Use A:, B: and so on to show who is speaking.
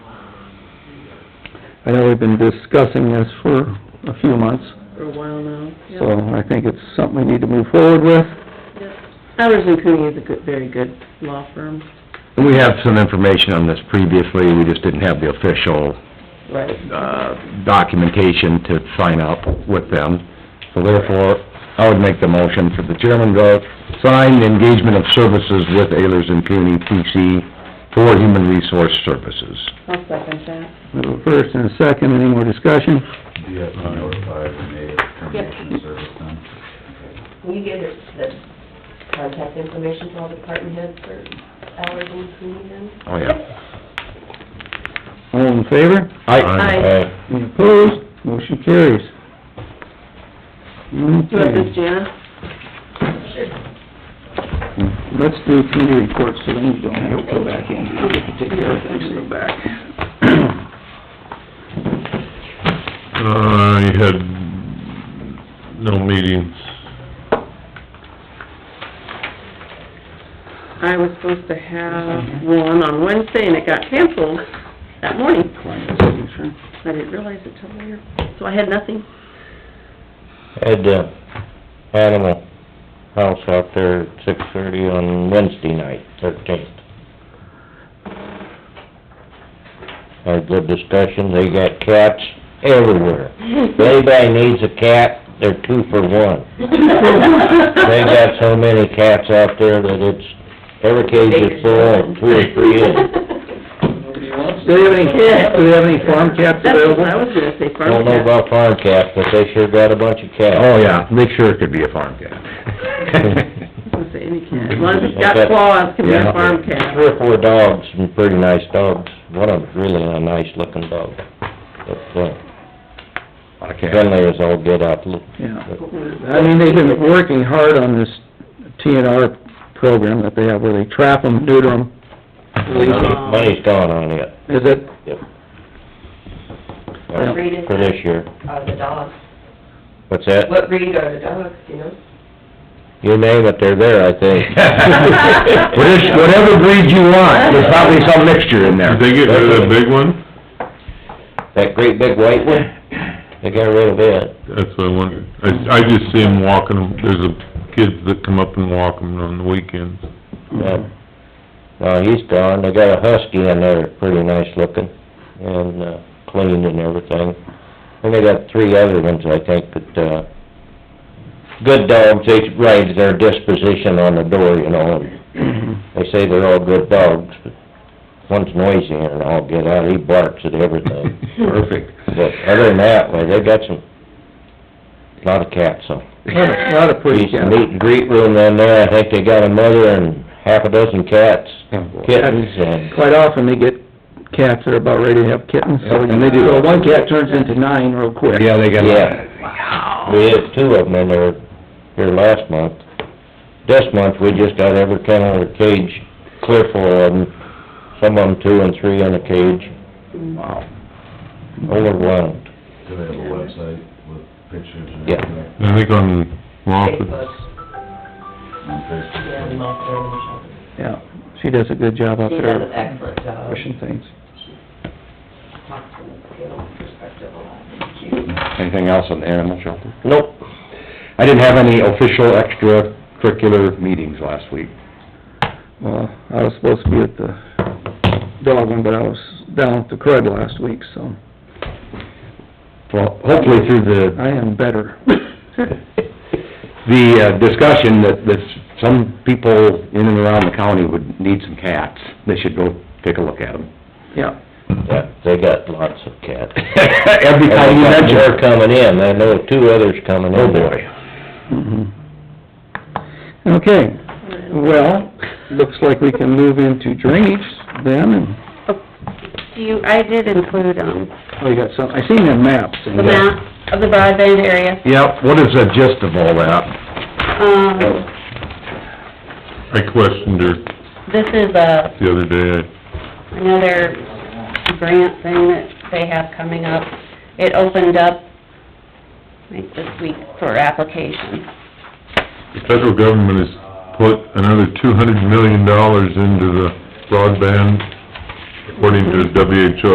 A: I know we've been discussing this for a few months,
B: for a while now.
A: so I think it's something we need to move forward with.
B: Powers and Cooney is a good, very good law firm.
C: We have some information on this previously, we just didn't have the official,
B: Right.
C: uh, documentation to sign up with them. So therefore, I would make the motion for the chairman to sign the engagement of services with Ayers and Cooney PC for human resource services.
B: I'll second that.
A: We have a first and a second, any more discussion?
D: Do you
E: Uh,
D: have to notify Renee of termination of service then?
F: Will you get the contact information to all department heads for hours and meetings then?
C: Oh, yeah.
A: All in favor?
C: Aye.
B: Aye.
A: Any opposed? Motion carries.
B: You want this,
A: Okay,
B: Jana?
A: let's do committee reports, so then you don't have to go back in, you get to take care of things and go back.
E: Uh, I had no meetings.
B: I was supposed to have one on Wednesday and it got canceled that morning. I didn't realize it till later, so I had nothing.
G: Had the animal house out there at six thirty on Wednesday night, thirteenth. Had good discussion, they got cats everywhere. If anybody needs a cat, they're two for one. They got so many cats out there that it's, every cage is full, and two or three in.
A: Do they have any, do they have any farm cats
B: That's what
A: available?
B: I was gonna say, farm
G: Don't know
B: cat.
G: about farm cats, but they sure got a bunch of cats.
C: Oh, yeah, make sure it could be a farm cat.
B: I was gonna say any cat, as long as it's got claws, it can be a farm cat.
G: Three or four dogs, and pretty nice dogs. One of them's really a nice looking dog. But, uh,
C: Lot of cats.
G: friendly as all get out.
A: Yeah. I mean, they've been working hard on this TNR program that they have, where they trap them, neuter them.
G: Money's gone on it. uh,
A: Is it,
G: Yep.
F: What breed is
G: For
F: that?
G: this year.
F: Uh, the dogs.
G: What's that?
F: What breed are the dogs, you know?
G: You name it, they're there, I think.
C: What is- Whatever breed you want, there's probably some mixture in there.
E: Did they get rid of that big one?
G: That great big white one, they got rid of it.
E: That's what I wondered. I, I just see them walking, there's a, kids that come up and walk them on the weekends.
G: But, No, he's gone. They got a husky in there, pretty nice looking, and, uh, clean and everything. And they got three other ones, I think, that, uh, good dogs, they write their disposition on the door, you know, and they say they're all good dogs, but one's noisy and I'll get out, he barks at everything.
C: Perfect.
G: But other than that, well, they got some, lot of cats, so.
A: lot of, lot of pretty
G: Piece of
A: cats.
G: meet and greet room in there, I think they got a mother and half a dozen cats, kittens, and,
A: Quite often, they get cats that are about ready to have kittens, so,
C: Yeah, and they do.
A: so one cat turns into nine real quick.
C: Yeah, they got
G: yeah. We had two of them in there here last month. This month, we just got every kennel or cage clear full of them, some of them two and three in a cage,
A: Wow.
G: overwhelmed.
D: Do they have a website with pictures and
G: Yeah.
D: everything
E: I think on Moffett,
F: Facebook,
D: on
F: yeah,
D: Facebook?
F: and all that.
A: Yeah, she does a good job out
F: She does an
A: there
F: excellent job.
A: pushing things.
F: Talks from a skill perspective a lot.
C: Anything else on the animal shelter?
G: Nope.
C: I didn't have any official extracurricular meetings last week.
A: Well, I was supposed to be at the dog one, but I was down at the crud last week, so
C: Well, hopefully through the,
A: I am better.
C: the uh, discussion that, that some people in and around the county would need some cats. They should go take a look at them.
A: Yeah,
G: Yeah, they got lots of cats.
C: Every time you mention
G: They're
C: her,
G: coming in, I know two others coming in.
C: oh boy.
A: mhm. Okay, well, looks like we can move into drainage then, and,
B: Do you, I did include, um,
A: oh, you got some, I seen them maps. and-
B: the map of the broadband area,
C: Yep, what is the gist of all that?
A: Oh.
B: um,
E: I questioned her
B: this is a,
E: the other day,
B: another grant thing that they have coming up. It opened up, I think this week, for applications.
E: the federal government has put another two hundred million dollars into the broadband, according to WHO.